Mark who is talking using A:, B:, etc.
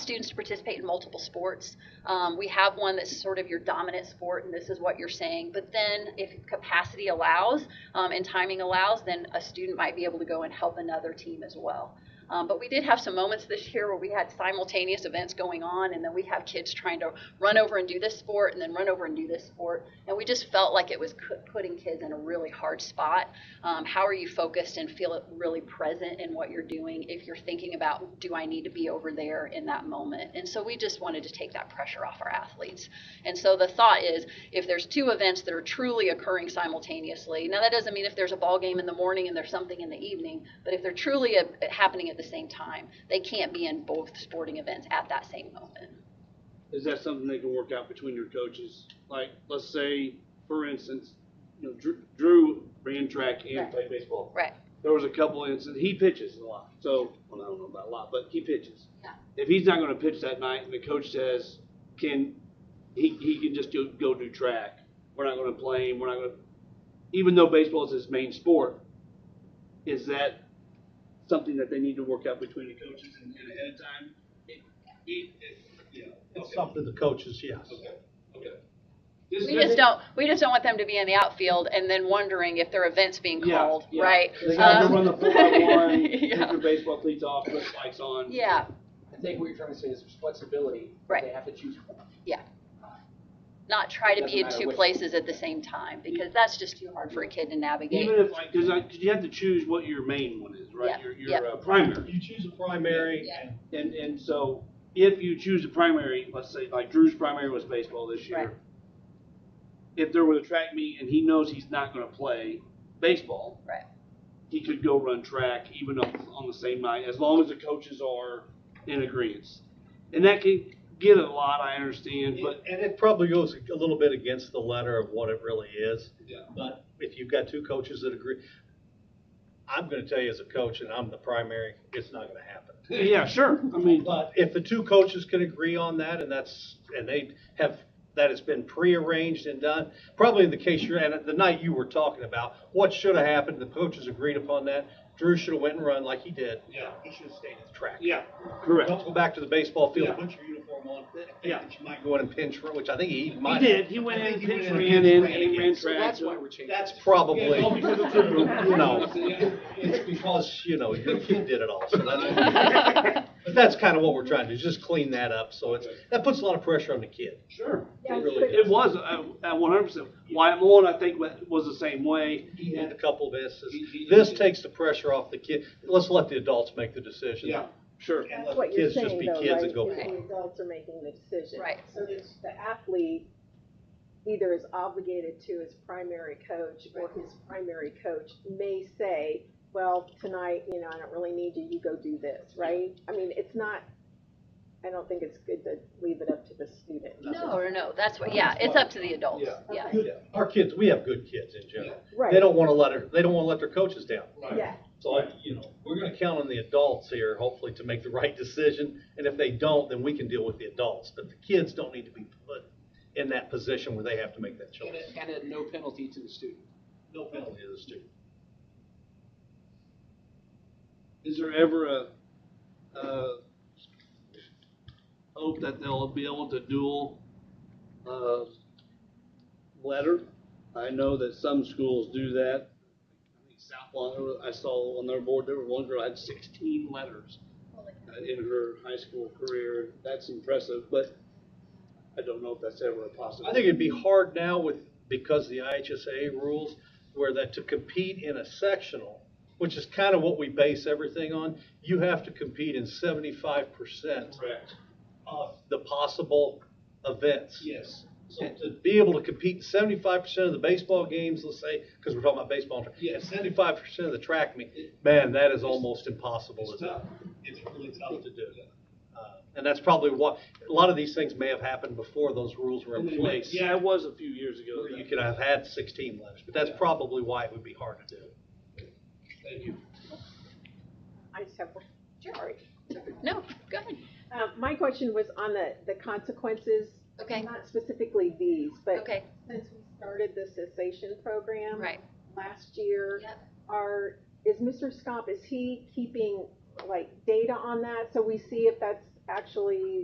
A: students to participate in multiple sports. Um, we have one that's sort of your dominant sport, and this is what you're saying. But then, if capacity allows um, and timing allows, then a student might be able to go and help another team as well. Um, but we did have some moments this year where we had simultaneous events going on, and then we have kids trying to run over and do this sport, and then run over and do this sport. And we just felt like it was cu- putting kids in a really hard spot. Um, how are you focused and feel really present in what you're doing if you're thinking about, do I need to be over there in that moment? And so we just wanted to take that pressure off our athletes. And so the thought is if there's two events that are truly occurring simultaneously, now that doesn't mean if there's a ball game in the morning and there's something in the evening, but if they're truly uh, happening at the same time, they can't be in both sporting events at that same moment.
B: Is that something they can work out between your coaches? Like, let's say, for instance, you know, Drew, Drew ran track and
A: Right.
B: played baseball.
A: Right.
B: There was a couple instances, he pitches a lot. So, well, I don't know about a lot, but he pitches.
A: Yeah.
B: If he's not going to pitch that night and the coach says, can, he, he can just go, go do track. We're not going to play him. We're not going to, even though baseball is his main sport, is that something that they need to work out between the coaches and, and ahead of time? It- it- it- yeah.
C: It's
B: Okay.
C: something the coaches, yes.
B: Okay,
A: We just don't. We just don't want them to be in the outfield and then wondering if their event's being
B: Yeah,
A: called,
B: yeah.
A: right?
B: They gotta
A: Um,
B: run the four by one, take
A: yeah.
B: your baseball cleats off, put spikes on.
A: yeah,
D: I think what you're trying to say is there's flexibility. but
A: Right.
D: They have to choose one.
A: not try to be in
D: Doesn't
A: two
D: matter which-
A: places at the same time because that's just too hard for a kid to navigate.
B: Even if, like, cause I, cause you have to choose what your main one is, right?
A: Yeah,
B: Your,
A: yeah.
B: your uh, primary.
C: You choose a primary and
B: And, and so if you choose a primary, let's say like Drew's primary was baseball this
A: Right.
B: year. If there were a track meet and he knows he's not gonna play baseball,
A: Right.
B: he could go run track even on, on the same night, as long as the coaches are in agreement. And that can get a lot, I understand, but
C: And it probably goes a little bit against the letter of what it really is.
B: Yeah.
C: But if you've got two coaches that agree, I'm gonna tell you as a coach, and I'm the primary, it's not gonna happen.
B: Yeah, sure. I mean,
C: But if the two coaches can agree on that, and that's, and they have, that has been prearranged and done, probably in the case you're, and the night you were talking about, what should have happened, the coaches agreed upon that, Drew should have went and run like he did.
B: Yeah.
C: He should have stayed at the track.
B: yeah, correct.
C: Don't go back to the baseball field,
B: Yeah.
C: put your uniform on, I think
B: Yeah.
C: that you might go in and pinch, run, which I think he
B: He
C: might.
B: did. He went
C: I
B: in,
C: think he
B: pitched,
C: went
B: ran in,
C: and
B: and ran
C: against-
D: So
B: track.
D: that's why we're changing.
C: That's probably,
B: Yeah, all because of Drew.
C: you know, it's because, you know, your kid did it all, so that's. But that's kind of what we're trying to do, is just clean that up, so it's, that puts a lot of pressure on the kid.
B: Sure.
C: It really
B: It
C: does.
B: was uh, at one hundred percent. Wyatt Mullen, I think, wa- was the same way.
C: He had a couple misses.
B: He- he-
C: This takes the pressure off the kid. Let's let the adults make the decision.
B: Sure.
C: And
E: That's
C: let the
E: what you're
C: kids just
E: saying
C: be
E: though,
C: kids
E: right?
C: and go
E: Is
C: play.
E: The adults are making the decision.
A: Right.
E: So it's the athlete either is obligated to his primary coach or his primary coach may say, well, tonight, you know, I don't really need you, you go do this, right? I mean, it's not, I don't think it's good to leave it up to the student.
A: no, no, no. That's what. Yeah, it's up to the adults.
B: Yeah.
A: Yeah.
C: Good- Our kids, we have good kids in general.
E: Right.
C: They don't want to let her, they don't want to let their coaches down.
E: Yeah,
C: So, I- you know, we're going to count on the adults here, hopefully, to make the right decision. And if they don't, then we can deal with the adults. But the kids don't need to be put in that position where they have to make that
D: And
C: choice.
D: a, and a no penalty to the student.
C: No penalty to the student.
B: Is there ever a, uh, hope that they'll be able to dual, uh, letter? I know that some schools do that. I think South Lawn, I saw on their board, there was one girl had sixteen letters uh, in her high school career. That's impressive, but I don't know if that's ever a
C: I
B: possibility.
C: think it'd be hard now with, because the IHSA rules, where that to compete in a sectional, which is kind of what we base everything on, you have to compete in seventy-five percent
B: Correct.
C: of the possible events.
B: Yes.
C: So to be able to compete in seventy-five percent of the baseball games, let's say, because we're talking about baseball,
B: Yeah.
C: seventy-five percent of the track meet, man, that is almost impossible.
B: It's
C: isn't it?
B: tough.
C: It's really tough to do. Uh, And that's probably why, a lot of these things may have happened before those rules were in place
B: Yeah, it was a few years ago.
C: where you could have had sixteen letters, but that's probably why it would be hard to do.
B: Thank you.
E: I just have one. Sorry.
A: No. Go ahead.
E: Uh, my question was on the, the consequences.
A: Okay.
E: Not specifically these, but
A: Okay.
E: since we started the cessation program.
A: Right.
E: last year.
A: Yep.
E: Are, is Mr. Scop, is he keeping like data on that so we see if that's actually